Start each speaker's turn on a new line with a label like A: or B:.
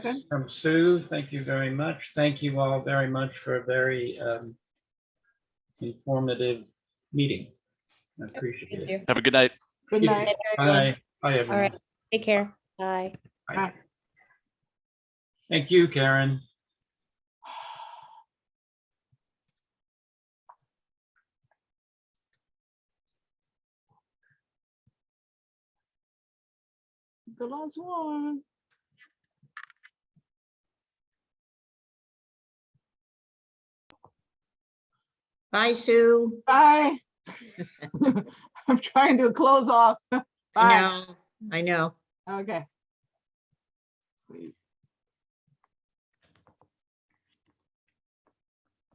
A: Okay.
B: from Um, Sue. Thank you very much. Thank you all very much for a very um, informative meeting. I appreciate
C: Thank
B: it.
C: you.
D: Have a good night.
A: Good
B: Yeah.
A: night.
B: Bye. Bye, everyone.
C: right. Take care. Bye.
B: Bye. Thank you, Karen.
A: The last one.
E: Bye, Sue.
A: Bye. I'm trying to close off.
E: I
A: Bye.
E: know, I know.
A: Okay. Please.